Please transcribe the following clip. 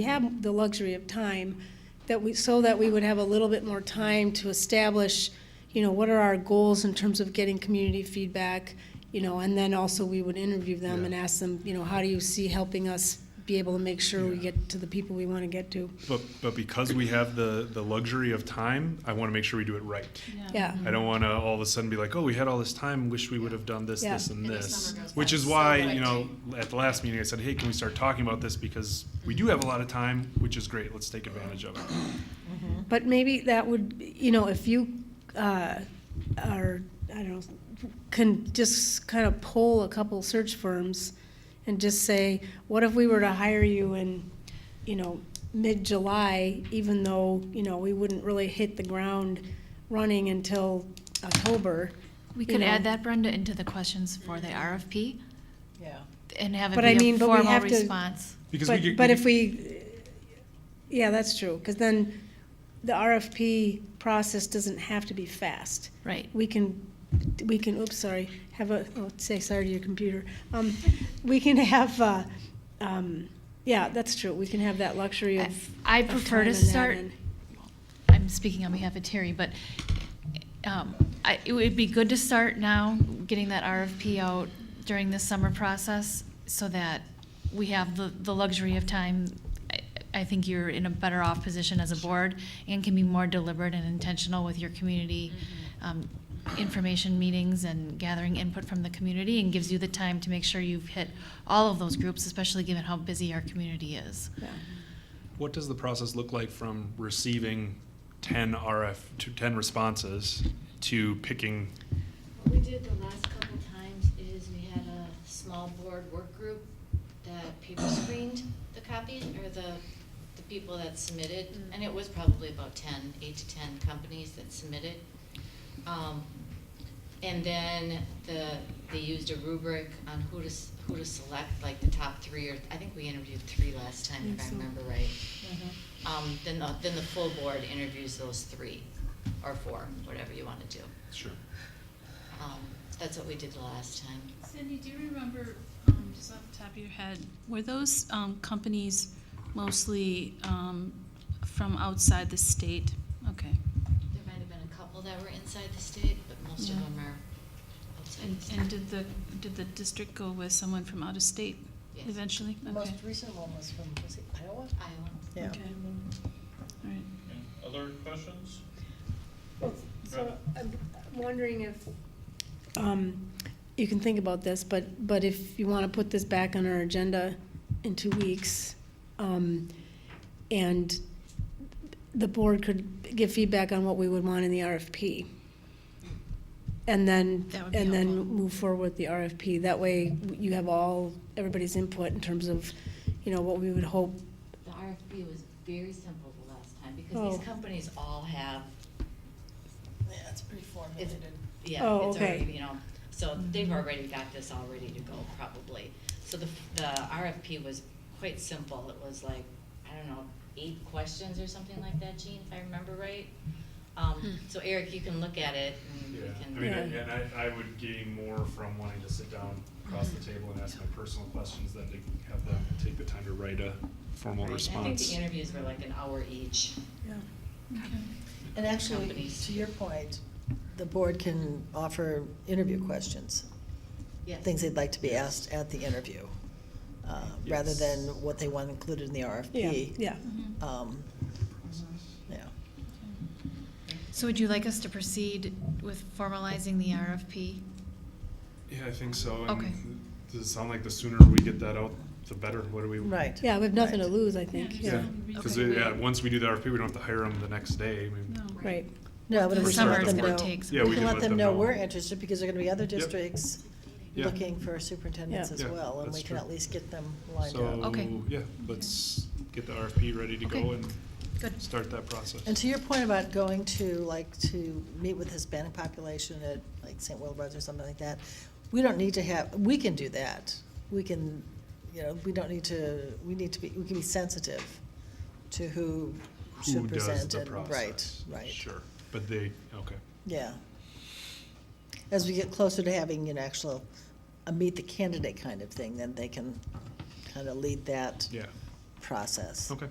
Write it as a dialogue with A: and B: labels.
A: We have the luxury of time that we, so that we would have a little bit more time to establish, you know, what are our goals in terms of getting community feedback, you know, and then also we would interview them and ask them, you know, how do you see helping us be able to make sure we
B: Yeah.
A: get to the people we want to get to?
B: But, but because we have the, the luxury of time, I want to make sure we do it right.
A: Yeah,
B: I don't want to all of a sudden be like, oh, we had all this time, wish we would have done this,
A: Yeah.
B: this, and
C: And this
B: this.
C: number goes
B: Which
C: by
B: is
C: so
B: why,
C: quick.
B: you know, at the last meeting, I said, hey, can we start talking about this? Because we do have a lot of time, which is great. Let's take advantage of it.
A: but maybe that would, you know, if you, uh, are, I don't know, can just kind of pull a couple search firms and just say, what if we were to hire you in, you know, mid-July, even though, you know, we wouldn't really hit the ground running until October?
D: We
A: you
D: could add
A: know?
D: that, Brenda, into the questions for the RFP
E: Yeah.
D: and have it
A: But I
D: be
A: mean,
D: a
A: but we
D: formal
A: have to-
D: response.
B: Because we
A: But,
B: could-
A: but
B: we
A: if we, yeah, that's true, because then the RFP process doesn't have to be fast.
D: Right.
A: We can, we can, oops, sorry, have a, oh, say sorry to your computer. Um, we can have, uh, um, yeah, that's true, we can have that luxury
D: I-
A: of.
D: I
A: of
D: prefer to
A: time on that
D: start-
A: end.
D: I'm speaking on behalf of Terry, but um, I- it would be good to start now, getting that RFP out during the summer process so that we have the the luxury of time. I- I think you're in a better off position as a board and can be more deliberate and intentional with your community um, information meetings and gathering input from the community and gives you the time to make sure you've hit all of those groups, especially given how busy our community is.
A: Yeah.
B: What does the process look like from receiving ten RF, to ten responses to picking?
C: What we did the last couple times is we had a small board work group that paper screened the copies, or the, the people that submitted, and it was probably about ten, eight to ten companies that submitted. Um, And then the, they used a rubric on who to, s- who to select, like the top three, or, I think we interviewed three last time, if
A: Think
C: I
A: so.
C: remember right. Um, then the, then the full board interviews those three, or four, whatever you wanna do.
B: Sure.
C: Um, that's what we did the last time.
F: Cindy, do you remember, um, just off the top of your head, were those um, companies mostly um, from outside the state? Okay.
C: There might have been a couple that were inside the state, but most of
F: Yeah.
C: them are outside
F: And,
C: the
F: and
C: state.
F: did the, did the district go with someone from out of state
C: Yes.
F: eventually?
E: The
F: Okay.
E: most recent one was from, was it Iowa?
C: Iowa.
E: Yeah.
F: Okay. All right.
G: Other questions?
A: So I'm I'm wondering if, um, you can think about this, but, but if you want to put this back on our agenda in two weeks, um, and the board could give feedback on what we would want in the RFP. And then,
D: That would be
A: and then
D: helpful.
A: move forward with the RFP. That way, you have all, everybody's input in terms of, you know, what we would hope.
C: The RFP was very simple the last time,
A: Oh.
C: because these companies all have,
E: Yeah, it's pretty
C: it's,
E: formulated.
C: yeah,
A: Oh,
C: it's
A: okay.
C: already, you know, so they've already got this all ready to go probably. So the, the RFP was quite simple, it was like, I don't know, eight questions or something like that, Gene, if I remember right. Um, so Eric, you can look at it and Mm, we
B: Yeah,
C: can.
B: I mean,
A: Yeah.
B: and I, I would gain more from wanting to sit down across the table and ask my personal questions than to have them take the time to write a formal
C: Right, and I think the
B: response.
C: interviews were like an hour each.
E: And actually,
C: Companies.
E: to your point, the board can offer interview questions,
C: Yes.
E: things they'd like to be asked at the interview, uh, rather
B: Yes.
E: than what they want included in the RFP.
A: Yeah.
D: Mm-hmm.
E: Um, yeah.
D: So would you like us to proceed with formalizing the RFP?
B: Yeah, I think so.
D: Okay.
B: And Does it sound like the sooner we get that out, the better? What do we?
E: Right.
A: Yeah, we have nothing to
E: Right.
A: lose, I think,
F: Yeah.
A: yeah,
B: Yeah,
F: Yeah.
B: because,
D: Okay.
B: yeah, once we do the RFP, we don't have to hire them the next day. I mean,
F: No.
A: right.
E: No, but
D: The
E: we can
B: summer
E: let
B: is
E: them
B: gonna
E: know-
D: take some
B: Yeah,
E: We
B: we
E: can let them know we're
B: know.
E: interested, because there are gonna be other districts
B: Yeah.
E: looking for superintendents
A: Yeah.
E: as
B: Yeah,
E: well, and
B: that's
E: we can
B: true.
E: at least get them lined up.
B: so,
D: Okay.
B: yeah, let's get the RFP ready to go
D: Okay.
B: and
D: Good.
B: start that process.
E: And to your point about going to, like, to meet with Hispanic population at, like, St. Wilbur's or something like that, we don't need to have, we can do that. We can, you know, we don't need to, we need to be, we can be sensitive to who
B: Who
E: should
B: does
E: present
B: the
E: and, right,
B: process?
E: right.
B: Sure, but they, okay.
E: Yeah. As we get closer to having an actual, a meet the candidate kind of thing, then they can kind of lead that
B: Yeah,
H: process.
E: Okay.